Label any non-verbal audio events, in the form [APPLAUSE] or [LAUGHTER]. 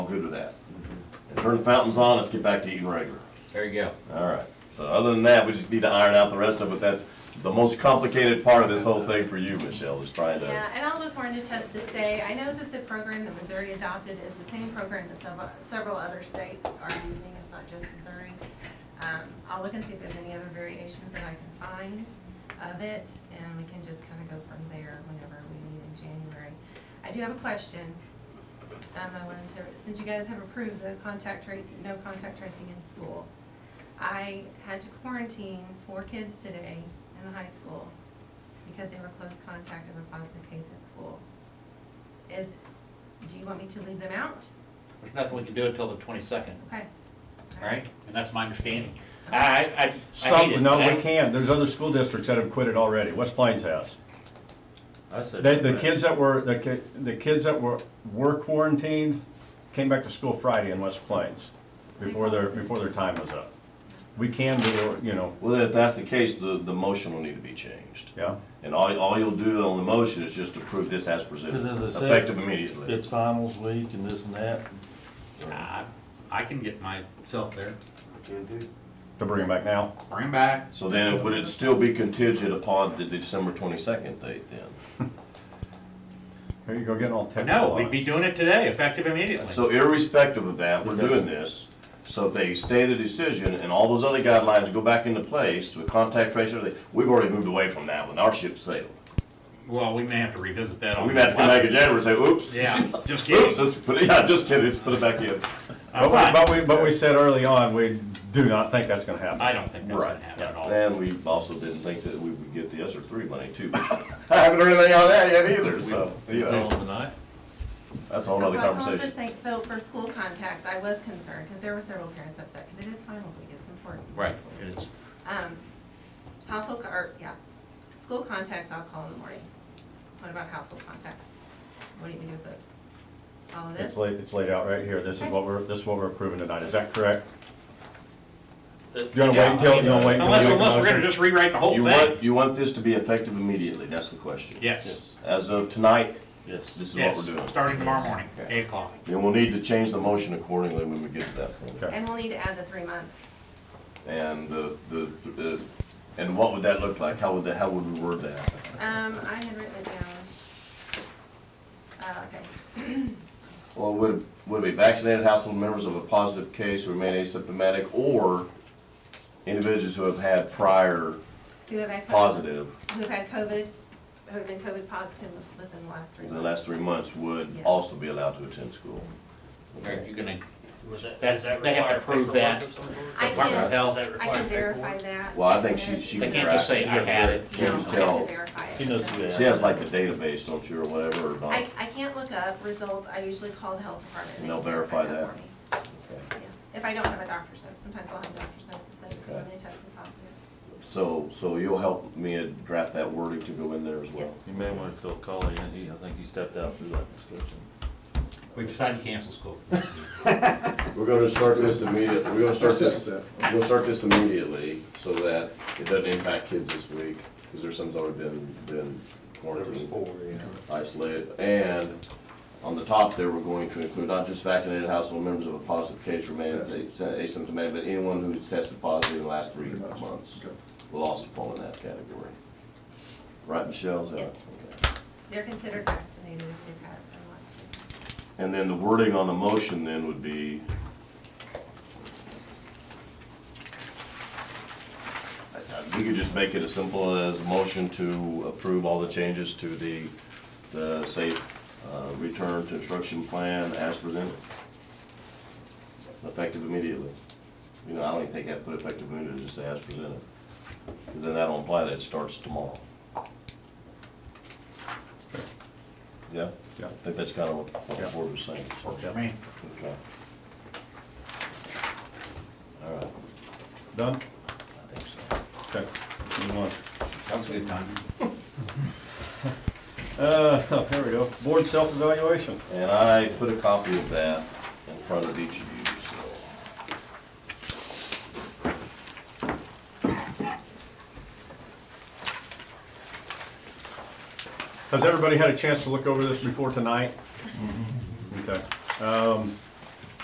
good with that. And turn the fountains on, let's get back to eating regular. There you go. All right. So other than that, we just need to iron out the rest of it. That's the most complicated part of this whole thing for you, Michelle, is trying to. Yeah, and I'll look more into tests to say, I know that the program that Missouri adopted is the same program that several, several other states are using, it's not just Missouri. Um, I'll look and see if there's any other variations that I can find of it, and we can just kind of go from there whenever we meet in January. I do have a question. Um, I wanted to, since you guys have approved the contact tracing, no contact tracing in school, I had to quarantine four kids today in the high school because they were close contact of a positive case at school. Is, do you want me to leave them out? There's nothing we can do until the twenty-second, Okay. all right? And that's my understanding. I, I- I, I hate it. Some, no, I- we can't, there's other school districts that have quit it already, West Plains has. I said- The, the kids that were, the ki, the kids that were, were quarantined came back to school Friday in West Plains before their, before their time was up. We can do, you know, Well, then if that's the case, the, the motion will need to be changed. yeah, And all, all you'll do on the motion is just approve this as presented, 'Cause as I said, effective immediately. It's finals week and this and that. I I can get myself there. to bring them back now. Bring 'em back. So then, it- would it still be contingent upon the December twenty-second date then? Here you go, getting all technical. No, on we'd it. be doing it today, effective immediately. So irrespective of that, we're doing this, so if they stay the decision and all those other guidelines go back into place with contact tracing, they- we've already moved away from that one, our ship sailed. Well, we may have to revisit that on. We've had to come back in January and say, oops, Yeah, just oops, kidding. let's put it, [LAUGHS] yeah, just kidding, let's put it back in. I'm But fine. we, but we, but we said early on, we do not think that's gonna happen. I don't think that's gonna Right. happen at all. And we also didn't think that we would get the ESER three money too. [LAUGHS] I haven't heard anything on that yet either, so, you Tell know, them tonight. that's a whole other Well, I'm just conversation. think- So for school contacts, I was concerned, because there were several parents upset, because it is finals week, it's important. Right, it is. Um, household, co- or, yeah, school contacts, I'll call in the morning. What about household contacts? What do you do with those? All of It's this? laid, it's laid out right here, this is what we're, this is what we're approving tonight, is that correct? You You wanna wait until, you wanna wait? until Unless, you make a unless we're gonna motion? just rewrite the whole You thing. want, you want this to be effective immediately, that's the question. Yes, As of tonight, Yes. this is what yes, we're doing. starting tomorrow morning, Okay. eight o'clock. And we'll need to change the motion accordingly when we get to that point. Okay. And we'll need to add the three months. And the, the, the, and what would that look like? How would that, how would we word that? Um, I had written it down. Uh, okay. Well, would, would it be vaccinated household members of a positive case who remain asymptomatic or individuals who have had prior Who have had COVID? positive Who've had COVID, who've been COVID positive within the last three in the months. last three months would Yeah. also be allowed to attend school? Are you gonna, Was that, That's- does that they have to require prove paperwork that. of some sort? I Department of can, Does Health, that I can require verify paperwork? that. Well, I think she, she. they can can't just track- say, I had it. she No, can I have to tell- verify it. She knows who She has like the database, don't you, or whatever, or I, not? I can't look up results, I usually call the health department. And they'll can verify that that. for me. Yeah. If I don't have a doctor's note, sometimes I'll have a doctor's note that says, Okay. they tested positive. So, so you'll help me draft that wording to go in there as well? You may want to fill Colley in, he, E. I think he stepped out through that discussion. we decided to cancel school. We're gonna start this immediately, we're gonna start this, we're gonna start this immediately, so that it doesn't impact kids this week, because there's some's already been, been quarantined, isolated, and on the top there, we're going to include not just vaccinated household members of a positive case remaining asymptomatic, but anyone who's tested positive in the last three months will also fall in that category. Right, Michelle, is that? Yes. Okay. They're considered vaccinated if they've had it in the last three months. And then the wording on the motion then would be. I- I- Uh, We could just make it as simple as a motion to approve all the changes to the, the safe, uh, return to instruction plan as presented. Effective immediately. You know, I don't even think that put effective immediately, just say as presented. 'Cause Then that'll imply that it starts tomorrow. Yeah? Yeah. I think that's kind of what what the Yeah. board was saying. so. I mean, Okay. All right, Done? I think so. Okay, move on. that was a good time. [LAUGHS] Uh, there we go. Board self-evaluation. And I put a copy of that in front of each of you, so. Mm-hmm. Has everybody had a chance to look over this before tonight? Okay. Um,